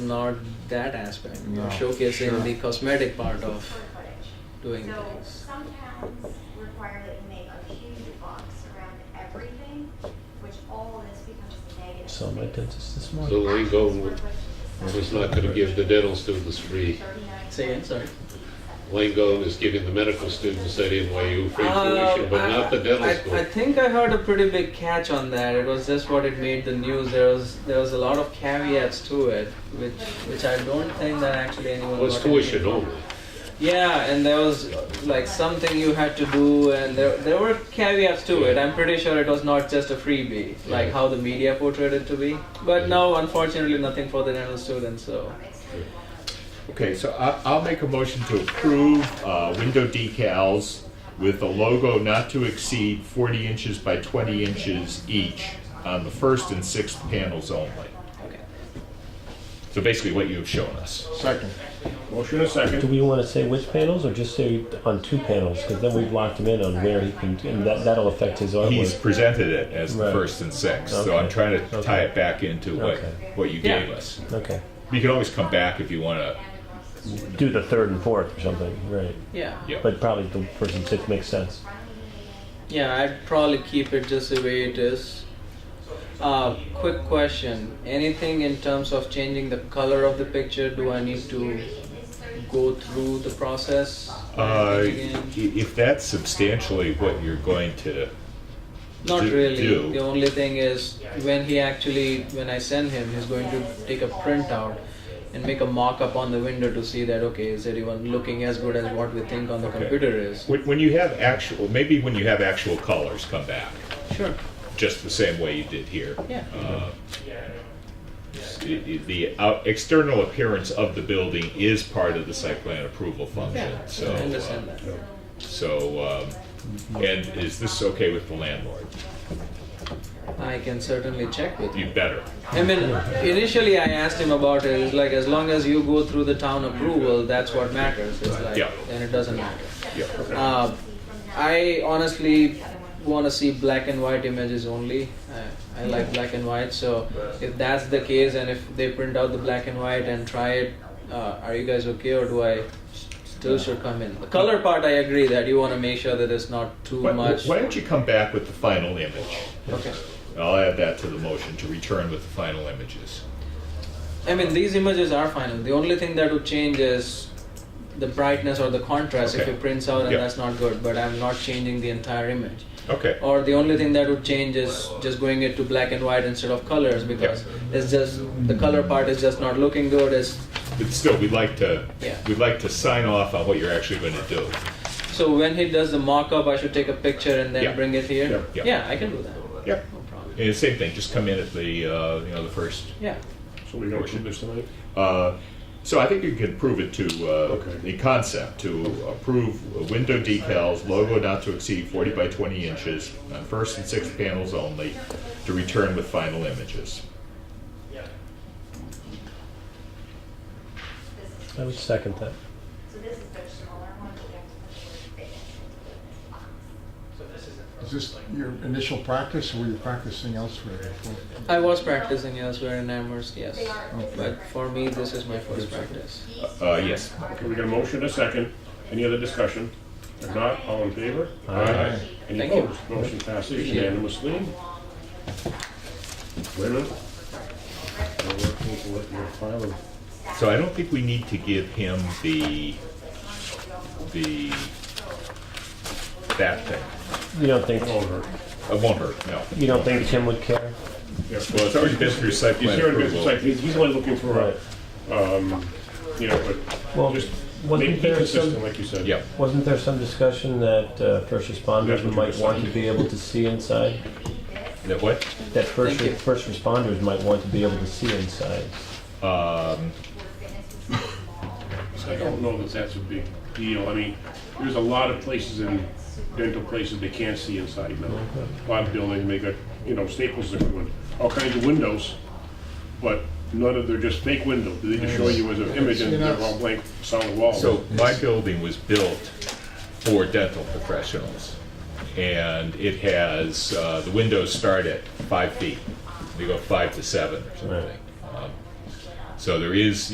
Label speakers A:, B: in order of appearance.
A: not that aspect. You're
B: No,
A: showcasing
B: sure.
A: the cosmetic part
C: This is
A: of
C: square footage.
A: doing
C: So
A: things.
C: some towns require that you make a huge box around everything, which all of this becomes a negative.
D: Saw my
C: space.
D: dentist this
E: So
D: morning.
E: Lane Golden was not going to give the dental students free.
A: Say again, sorry.
E: Lane Golden is giving the medical students at NYU free tuition, but
A: Um,
E: not the dental
A: I,
E: school.
A: I think I heard a pretty big catch on that. It was just what it made the news. There was there was a lot of caveats to it, which which I don't think that actually anyone
E: Well, it's
A: got anything
E: tuition
A: from.
E: only.
A: Yeah, and there was like something you had to do, and there there were caveats to it. I'm pretty sure it was not just a freebie, like
E: Yeah.
A: how the media portrayed it to be. But
E: Yeah.
A: no, unfortunately, nothing for the dental students. So
B: Okay, so I, I'll make a motion to approve uh, window decals with a logo not to exceed 40 inches by 20 inches each on the first and sixth panels only.
A: okay.
B: So basically what you have shown us.
F: Second. Motion and a
D: Do
F: second.
D: we want to say which panels or just say on two panels? Because then we've locked him in on where he can, and that, that'll affect his
B: He's
D: artwork.
B: presented it as the
D: Right.
B: first and sixth, so I'm
D: Okay.
B: trying to tie
D: Okay.
B: it back into what,
D: Okay.
B: what you
A: Yeah.
B: gave us.
D: Okay.
B: You can always come back if you want to.
D: Do the third and fourth or something, right.
A: Yeah.
D: But probably the first and sixth makes sense.
A: Yeah, I'd probably keep it just the way it is. Uh, quick question. Anything in terms of changing the color of the picture? Do I need to go through the process?
B: Uh,
A: Again?
B: i- if that's substantially what you're going to,
A: Not
B: do-
A: really.
B: do.
A: The only thing is when he actually, when I send him, he's going to take a printout and make a mock-up on the window to see that okay, is anyone looking as good as what we think on the
B: Okay.
A: computer is?
B: when, when you have actual, maybe when you have actual colors, come back
A: Sure.
B: just the same way you did here.
A: Yeah.
B: Uh, s- i- i- the out, external appearance of the building is part of the site plan approval function.
A: Yeah.
B: So,
A: I
B: uh,
A: understand that.
B: so, um, and is this okay with the landlord?
A: I can certainly check with
B: You better.
A: I mean, initially I asked him about it. It's like as long as you go through the town approval, that's what matters. It's like,
B: Yeah.
A: then it doesn't matter.
B: Yeah.
A: Uh, I honestly want to see black and white images only. I, I like black and white, so if that's the case, and if they print out the black and white and try it, uh, are you guys okay, or do I s- still should come in? The color part, I agree that you want to make sure that it's not too
B: Why,
A: much.
B: why don't you come back with the final image?
A: Okay.
B: I'll add that to the motion to return with the final images.
A: I mean, these images are final. The only thing that would change is the brightness or the contrast if
B: Okay.
A: it prints out, and
B: Yeah.
A: that's not good. But I'm not changing the entire image.
B: Okay.
A: Or the only thing that would change is just going it to black and white instead of colors because it's just the color part is just not looking good. It's,
B: But still, we'd like to,
A: Yeah.
B: we'd like to sign off on what you're actually going to do.
A: so when he does the mock-up, I should take a picture and then
B: Yeah.
A: bring it here.
B: Yeah.
A: yeah, I can do that.
B: Yep.
A: No problem.
B: And same thing, just come in at the, uh, you know, the first.
A: Yeah.
F: So we're gonna approve this tonight?
B: Uh, So I think you can prove it to, uh,
F: Okay.
B: the concept, to approve window decals, logo not to exceed 40 by 20 inches, on first and sixth panels only, to return with final images.
D: I would second that.
C: So this is the smaller one, but you have to put the word fake into the box.
F: Is this your initial practice, or were you practicing elsewhere before?
A: I was practicing elsewhere in Amherst, yes.
C: They are.
A: But for me, this is my first practice.
C: These
B: Uh, yes.
F: Okay,
C: are
F: we got a motion and a second. Any other discussion? If not, all in favor?
D: Aye.
F: Any
A: Thank you.
F: opposed? Motion passes
A: you.
F: unanimously. Wait a minute. Now we're taking it in the file and-
B: So I don't think we need to give him the, the, that thing.
D: You don't think,
F: Over.
B: It won't hurt, no.
D: you don't think Tim would care?
F: Yeah.
B: Well, it's already been through site
F: He's
B: plan
F: here in
B: approval.
F: business, like, he's he's only looking for,
D: Right.
F: a, um, you know, but
D: Well,
F: just
D: wasn't
F: make it
D: there
F: consistent,
D: some-
F: like you said.
B: Yep.
D: Wasn't there some discussion that uh, first responders
F: That's what
D: might
F: you
D: want to
F: decided.
D: be able to see inside?
B: That what?
D: That first,
A: Thank you.
D: first responders might want to be able to see inside.
B: Um,
F: So I don't know that that's a big deal. I mean, there's a lot of places in dental places they can't see inside now. A lot of buildings, they got, you know, Staples are doing all kinds of windows, but none of, they're just fake windows. They just show you as an image and they're all blank solid walls.
B: so my building was built for dental professionals, and it has uh, the windows start at five feet. They go five to seven or something.
D: Right.
B: Um, So there is,